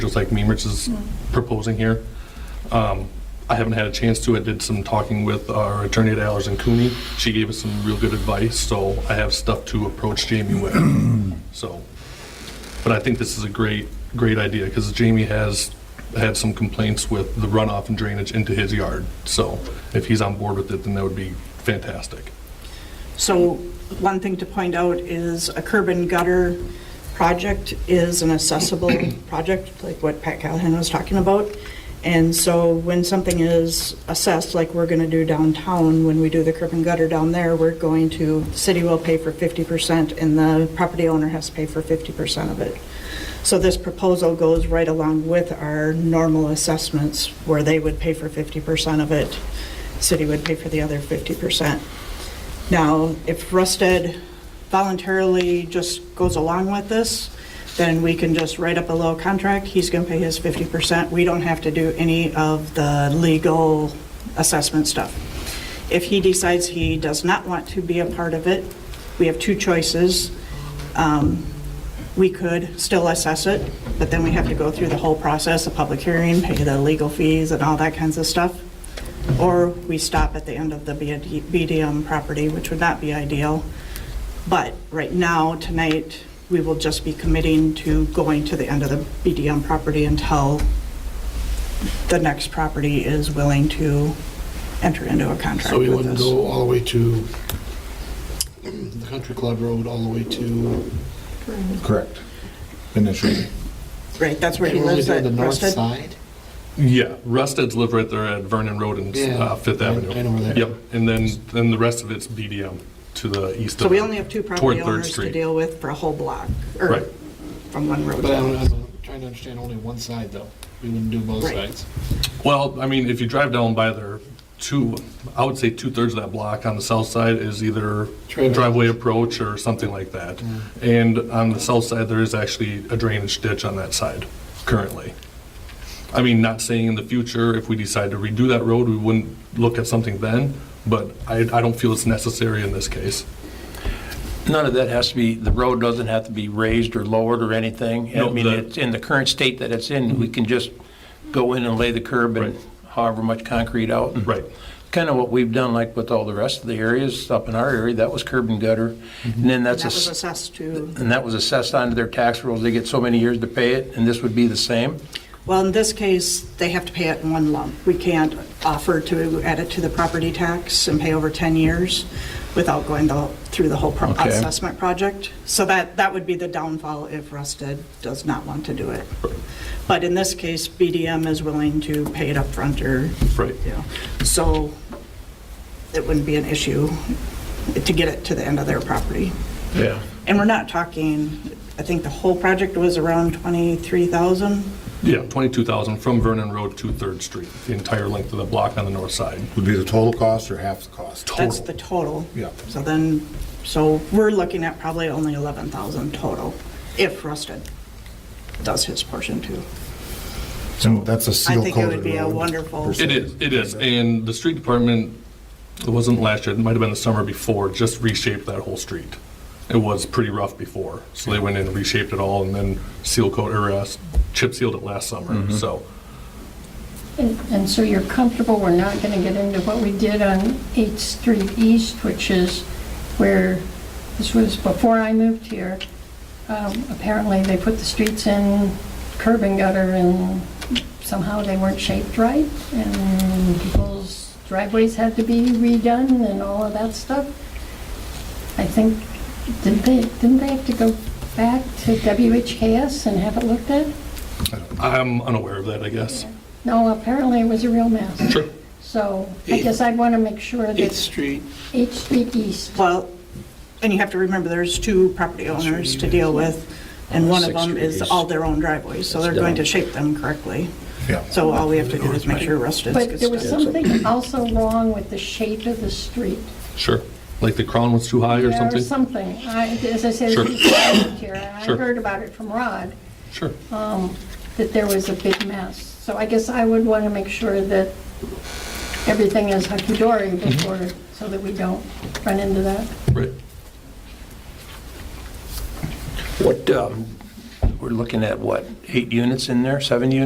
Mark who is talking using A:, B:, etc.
A: just like Memrich is proposing here. Um, I haven't had a chance to, I did some talking with our attorney at Allers and Cooney. She gave us some real good advice, so I have stuff to approach Jamie with, so. But I think this is a great, great idea, because Jamie has had some complaints with the runoff and drainage into his yard. So if he's on board with it, then that would be fantastic.
B: So one thing to point out is a curb and gutter project is an accessible project, like what Pat Callahan was talking about. And so when something is assessed, like we're going to do downtown, when we do the curb and gutter down there, we're going to, the city will pay for 50% and the property owner has to pay for 50% of it. So this proposal goes right along with our normal assessments where they would pay for 50% of it, city would pay for the other 50%. Now, if Rusted voluntarily just goes along with this, then we can just write up a little contract, he's going to pay his 50%, we don't have to do any of the legal assessment stuff. If he decides he does not want to be a part of it, we have two choices. Um, We could still assess it, but then we have to go through the whole process, a public hearing, pay the legal fees and all that kinds of stuff. Or we stop at the end of the BD BDM property, which would not be ideal. But right now, tonight, we will just be committing to going to the end of the BDM property until the next property is willing to enter into a contract
C: So we
B: with
C: wouldn't
B: us.
C: go all the way to the Country Club Road, all the way to,
D: Correct. Initially.
B: Right, that's where he
C: we're only
B: lives,
C: doing
B: at
C: the north
B: Rusted?
C: side?
A: Yeah, Rusted's live right there at Vernon Road and
C: Yeah,
A: uh, Fifth
C: I-
A: Avenue.
C: I know where that-
A: Yep, and then, then the rest of it's BDM to the east of.
B: So we only have two property
A: toward Third
B: owners to
A: Street.
B: deal with for a whole block,
A: Right.
B: or from one road.
C: But I'm I'm trying to understand only one side, though. We wouldn't do both
B: Right.
C: sides.
A: Well, I mean, if you drive down by there, two, I would say two-thirds of that block on the south side is either
C: Driveway.
A: driveway approach or something like that. And on the south side, there is actually a drainage ditch on that side currently. I mean, not saying in the future, if we decide to redo that road, we wouldn't look at something then, but I, I don't feel it's necessary in this case.
E: None of that has to be, the road doesn't have to be raised or lowered or anything. I
A: No,
E: mean,
A: the-
E: it's in the current state that it's in,
B: Mm-hmm.
E: we can just go in and lay the curb and
A: Right.
E: however much concrete out. and-
A: Right.
E: Kind of what we've done like with all the rest of the areas up in our area, that was curb and gutter.
A: Mm-hmm.
E: And then
B: That
E: that's,
B: was
E: ass-
B: assessed to
E: and that was assessed onto their tax rolls. They get so many years to pay it, and this would be the same.
B: Well, in this case, they have to pay it in one lump. We can't offer to add it to the property tax and pay over 10 years without going the- through the whole pro-
E: Okay.
B: assessment project. So that, that would be the downfall if Rusted does not want to do it. But in this case, BDM is willing to pay it upfront or,
A: Right.
B: you know, so it wouldn't be an issue to get it to the end of their property.
E: Yeah.
B: And we're not talking, I think the whole project was around 23,000.
A: Yeah, 22,000 from Vernon Road to Third Street, the entire length of the block on the north side.
D: Would be the total cost or half the cost?
B: That's the total.
D: Yeah.
B: So then, so we're looking at probably only 11,000 total, if Rusted does his portion too.
D: So that's a
B: I
D: seal
B: think it would
D: coated
B: be a
D: road.
B: wonderful.
D: percent.
A: It is, it is, and the street department, it wasn't last year, it might have been the summer before, just reshaped that whole street. It was pretty rough before, so they went in and reshaped it all, and then seal coat, or uh, chip sealed it last summer, so.
F: And and so you're comfortable, we're not going to get into what we did on 8th Street East, which is where, this was before I moved here. Um, Apparently, they put the streets in curb and gutter, and somehow they weren't shaped right, and people's driveways had to be redone and all of that stuff. I think, didn't they, didn't they have to go back to WHKS and have it looked at?
A: I'm unaware of that, I guess.
F: No, apparently it was a real mess.
A: Sure.
F: So I guess I'd want to make sure
C: Eighth
F: that
C: Street,
F: 8th Street East,
B: Well, and you have to remember, there's two property owners to deal with,
D: Uh,
B: and one of them is all their own driveways, so they're going to shape them correctly.
D: Yeah.
B: So all we have to do is make sure Rusted's
F: but there
B: good
F: was
B: stuff.
F: something also wrong with the shape of the street.
A: Sure, like the crown was too high or
F: Yeah,
A: something?
F: something. I, as I said,
A: Sure.
F: before I moved here, I
A: Sure.
F: heard about it from Rod,
A: Sure,
F: that there was a big mess. So I guess I would want to make sure that everything is hunky-dory
A: Mm-hmm.
F: before, so that we don't run into that.
A: right.
E: What, um, we're looking at what, eight units in there, seven units?